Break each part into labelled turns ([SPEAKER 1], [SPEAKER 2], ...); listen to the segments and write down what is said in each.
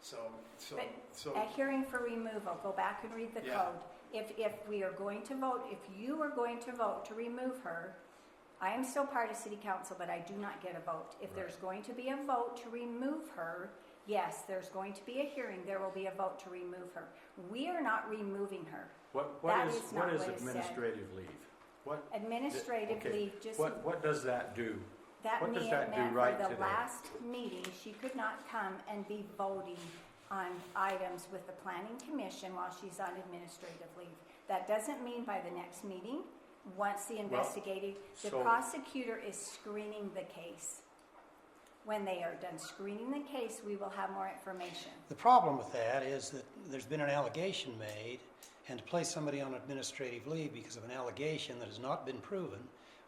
[SPEAKER 1] So, so,
[SPEAKER 2] But
[SPEAKER 1] so,
[SPEAKER 2] A hearing for removal, go back and read the
[SPEAKER 1] Yeah.
[SPEAKER 2] code. If, if we are going to vote, if you are going to vote to remove her, I am still part of city council, but I do not get a vote. If there's going to be a vote to remove her, yes, there's going to be a hearing, there will be a vote to remove her. We are not removing her.
[SPEAKER 3] What,
[SPEAKER 2] That
[SPEAKER 3] what is,
[SPEAKER 2] is
[SPEAKER 3] what
[SPEAKER 2] not
[SPEAKER 3] is
[SPEAKER 2] what it said.
[SPEAKER 3] administrative leave? What, Okay.
[SPEAKER 2] Administratively, just
[SPEAKER 3] what, what does that do?
[SPEAKER 2] that
[SPEAKER 3] what does
[SPEAKER 2] mean
[SPEAKER 3] that
[SPEAKER 2] that
[SPEAKER 3] do
[SPEAKER 2] for
[SPEAKER 3] right
[SPEAKER 2] the
[SPEAKER 3] today?
[SPEAKER 2] last meeting, she could not come and be voting on items with the planning commission while she's on administrative leave. That doesn't mean by the next meeting, once the investigating, the
[SPEAKER 3] so-
[SPEAKER 2] prosecutor is screening the case. When they are done screening the case, we will have more information.
[SPEAKER 4] The problem with that is that there's been an allegation made, and to place somebody on administrative leave because of an allegation that has not been proven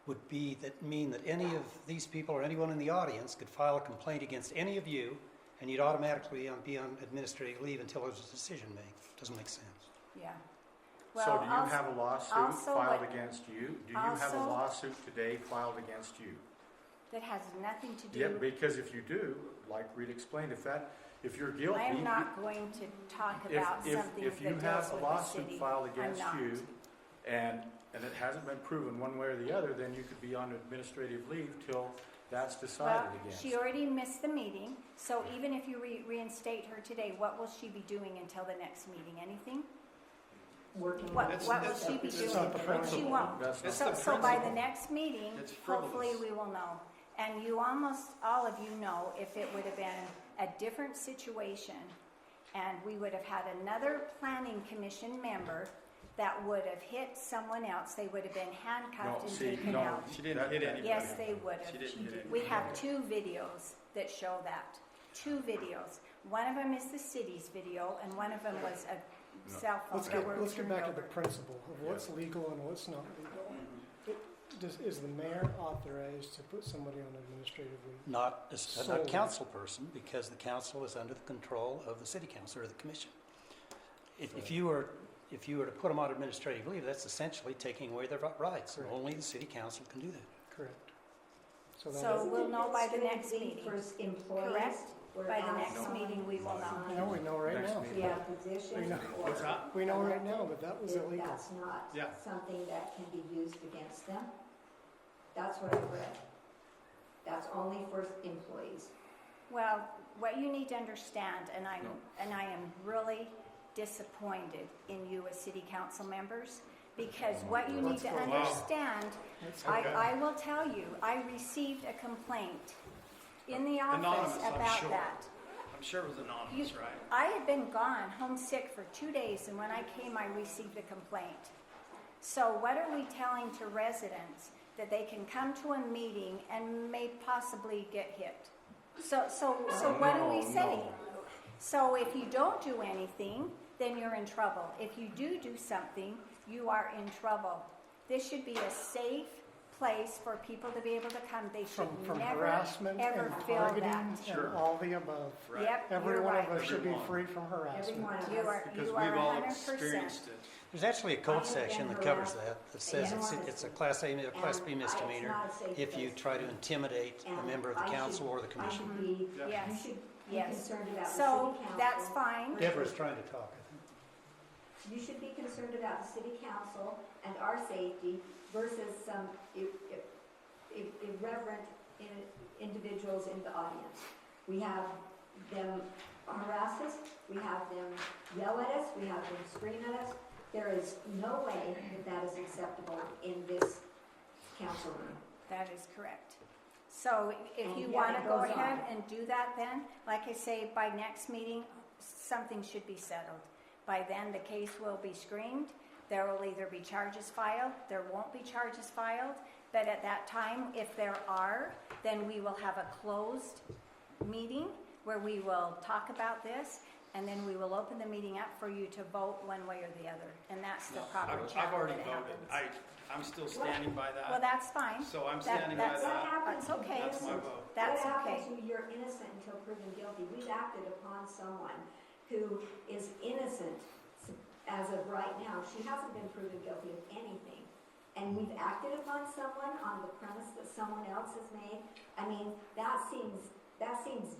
[SPEAKER 4] would be, that mean that any of these people or anyone in the audience could file a complaint against any of you, and you'd automatically on- be on administrative leave until there's a decision made. Doesn't make sense.
[SPEAKER 2] Yeah.
[SPEAKER 3] So
[SPEAKER 2] Well,
[SPEAKER 3] do you
[SPEAKER 2] also-
[SPEAKER 3] have a lawsuit
[SPEAKER 2] also
[SPEAKER 3] filed
[SPEAKER 2] what-
[SPEAKER 3] against you? Do you have a
[SPEAKER 2] also-
[SPEAKER 3] lawsuit today filed against you?
[SPEAKER 2] That has nothing to do.
[SPEAKER 3] Yeah, because if you do, like Reed explained, if that, if you're guilty.
[SPEAKER 2] I am
[SPEAKER 3] you-
[SPEAKER 2] not going to talk
[SPEAKER 3] if-
[SPEAKER 2] about
[SPEAKER 3] if-
[SPEAKER 2] something that
[SPEAKER 3] If you
[SPEAKER 2] deals with
[SPEAKER 3] have a
[SPEAKER 2] the
[SPEAKER 3] lawsuit
[SPEAKER 2] city.
[SPEAKER 3] filed
[SPEAKER 2] I'm
[SPEAKER 3] against
[SPEAKER 2] not.
[SPEAKER 3] you and, and it hasn't been proven one way or the other, then you could be on administrative leave till that's
[SPEAKER 2] Well,
[SPEAKER 3] decided against.
[SPEAKER 2] she already missed the meeting, so even if you re- reinstate her today, what will she be doing until the next meeting? Anything?
[SPEAKER 5] working
[SPEAKER 2] What,
[SPEAKER 5] on
[SPEAKER 1] That's-
[SPEAKER 2] what will
[SPEAKER 1] that's
[SPEAKER 2] she
[SPEAKER 1] not-
[SPEAKER 2] be
[SPEAKER 1] that's
[SPEAKER 2] doing?
[SPEAKER 1] not the
[SPEAKER 2] She
[SPEAKER 1] principle.
[SPEAKER 2] won't.
[SPEAKER 3] That's not-
[SPEAKER 1] That's
[SPEAKER 2] So,
[SPEAKER 1] the
[SPEAKER 2] so by the
[SPEAKER 1] principle.
[SPEAKER 2] next meeting,
[SPEAKER 1] It's
[SPEAKER 2] hopefully
[SPEAKER 1] frivolous.
[SPEAKER 2] we will know. And you almost, all of you know, if it would have been a different situation and we would have had another planning commission member that would have hit someone else, they would have been handcuffed
[SPEAKER 3] No,
[SPEAKER 2] and
[SPEAKER 3] see,
[SPEAKER 2] taken
[SPEAKER 3] no,
[SPEAKER 2] out.
[SPEAKER 6] She didn't
[SPEAKER 3] that-
[SPEAKER 6] hit
[SPEAKER 3] that-
[SPEAKER 6] anybody.
[SPEAKER 2] Yes, they would
[SPEAKER 6] She
[SPEAKER 2] have.
[SPEAKER 6] didn't hit
[SPEAKER 2] We
[SPEAKER 6] anybody.
[SPEAKER 2] have two videos that show that, two videos. One of them is the city's video, and one of them was a cell phone
[SPEAKER 5] Let's
[SPEAKER 2] that
[SPEAKER 5] get,
[SPEAKER 2] were
[SPEAKER 5] let's get
[SPEAKER 2] turned
[SPEAKER 5] back to the
[SPEAKER 2] over.
[SPEAKER 5] principle of what's legal and what's not legal. It- Does, is the mayor authorized to put somebody on administrative leave?
[SPEAKER 4] Not a, not a
[SPEAKER 5] So-
[SPEAKER 4] council person, because the council is under the control of the city council or the commission. If, if you were, if you were to put them on administrative leave, that's essentially taking away their ri- rights, and
[SPEAKER 5] Correct.
[SPEAKER 4] only the city council can do that.
[SPEAKER 5] Correct. So
[SPEAKER 2] So
[SPEAKER 5] that,
[SPEAKER 2] we'll know by the next
[SPEAKER 7] Isn't it
[SPEAKER 2] meeting,
[SPEAKER 7] for employees
[SPEAKER 2] correct?
[SPEAKER 7] or
[SPEAKER 2] By the
[SPEAKER 7] outside?
[SPEAKER 2] next meeting, we will know.
[SPEAKER 5] I know we know right
[SPEAKER 3] Next
[SPEAKER 5] now.
[SPEAKER 3] meeting.
[SPEAKER 7] Yeah,
[SPEAKER 3] Yeah.
[SPEAKER 7] position
[SPEAKER 5] We know.
[SPEAKER 7] or
[SPEAKER 6] What's that?
[SPEAKER 5] We know right now that that was
[SPEAKER 7] if
[SPEAKER 5] illegal.
[SPEAKER 7] that's not
[SPEAKER 6] Yeah.
[SPEAKER 7] something that can be used against them. That's what I read. That's only for employees.
[SPEAKER 2] Well, what you need to understand, and I'm, and I am really disappointed in you as city council members, because what you need to
[SPEAKER 5] Let's go.
[SPEAKER 6] Wow.
[SPEAKER 2] understand, I,
[SPEAKER 6] Okay.
[SPEAKER 2] I will tell you, I received a complaint in the office
[SPEAKER 6] Anonymous, I'm
[SPEAKER 2] about
[SPEAKER 6] sure.
[SPEAKER 2] that.
[SPEAKER 6] I'm sure it was anonymous,
[SPEAKER 2] You-
[SPEAKER 6] right?
[SPEAKER 2] I had been gone, homesick for two days, and when I came, I received a complaint. So what are we telling to residents? That they can come to a meeting and may possibly get hit? So, so, so
[SPEAKER 5] Oh,
[SPEAKER 2] what are we
[SPEAKER 3] No, no.
[SPEAKER 2] saying? So if you don't do anything, then you're in trouble. If you do do something, you are in trouble. This should be a safe place for people to be able to come. They should
[SPEAKER 5] From, from
[SPEAKER 2] never,
[SPEAKER 5] harassment
[SPEAKER 2] ever
[SPEAKER 5] and
[SPEAKER 2] feel
[SPEAKER 5] targeting
[SPEAKER 2] that.
[SPEAKER 5] and all the above.
[SPEAKER 6] Right.
[SPEAKER 2] Yep,
[SPEAKER 5] Every
[SPEAKER 2] you're
[SPEAKER 5] one of
[SPEAKER 2] right.
[SPEAKER 5] us should be
[SPEAKER 6] Everyone.
[SPEAKER 5] free from
[SPEAKER 7] Every
[SPEAKER 5] harassment.
[SPEAKER 7] one of
[SPEAKER 2] You
[SPEAKER 7] us.
[SPEAKER 2] are,
[SPEAKER 6] Because
[SPEAKER 2] you are
[SPEAKER 6] we've all
[SPEAKER 2] hundred percent.
[SPEAKER 6] experienced it.
[SPEAKER 4] There's actually a
[SPEAKER 7] Other
[SPEAKER 4] code
[SPEAKER 7] than
[SPEAKER 4] section that covers
[SPEAKER 7] harassment,
[SPEAKER 4] that, that says it's,
[SPEAKER 7] yeah.
[SPEAKER 4] it's a class A, a class B
[SPEAKER 7] And I- it's
[SPEAKER 4] misdemeanor
[SPEAKER 7] not a safe
[SPEAKER 4] if you
[SPEAKER 7] place.
[SPEAKER 4] try to intimidate a
[SPEAKER 7] And
[SPEAKER 4] member of the
[SPEAKER 7] I should-
[SPEAKER 4] council or the
[SPEAKER 7] I
[SPEAKER 4] commission.
[SPEAKER 7] should be,
[SPEAKER 6] Yeah.
[SPEAKER 7] you
[SPEAKER 2] Yes.
[SPEAKER 7] should be
[SPEAKER 2] Yes.
[SPEAKER 7] concerned about the city
[SPEAKER 2] So
[SPEAKER 7] council.
[SPEAKER 2] that's fine.
[SPEAKER 4] Deborah's trying to talk, I think.
[SPEAKER 7] You should be concerned about the city council and our safety versus some i- i- i- irreverent in- individuals in the audience. We have them harass us, we have them yell at us, we have them scream at us. There is no way that that is acceptable in this council room.
[SPEAKER 2] That is correct. So if
[SPEAKER 7] And
[SPEAKER 2] you
[SPEAKER 7] yet
[SPEAKER 2] want to
[SPEAKER 7] it
[SPEAKER 2] go
[SPEAKER 7] goes on.
[SPEAKER 2] ahead and do that then, like I say, by next meeting, something should be settled. By then, the case will be screened. There will either be charges filed, there won't be charges filed. But at that time, if there are, then we will have a closed meeting where we will talk about this. And then we will open the meeting up for you to vote one way or the other. And that's the
[SPEAKER 6] I've,
[SPEAKER 2] proper
[SPEAKER 6] I've
[SPEAKER 2] channel
[SPEAKER 6] already
[SPEAKER 2] that it
[SPEAKER 6] voted.
[SPEAKER 2] happens.
[SPEAKER 6] I, I'm still standing by
[SPEAKER 2] Well,
[SPEAKER 6] that.
[SPEAKER 2] that's fine.
[SPEAKER 6] So I'm
[SPEAKER 2] That-
[SPEAKER 6] standing by
[SPEAKER 2] that's-
[SPEAKER 6] that.
[SPEAKER 2] That's okay.
[SPEAKER 6] That's my vote.
[SPEAKER 2] That's
[SPEAKER 7] what
[SPEAKER 2] okay.
[SPEAKER 7] happened to you're innocent until proven guilty? We've acted upon someone who is innocent as of right now. She hasn't been proven guilty of anything. And we've acted upon someone on the premise that someone else has made. I mean, that seems, that seems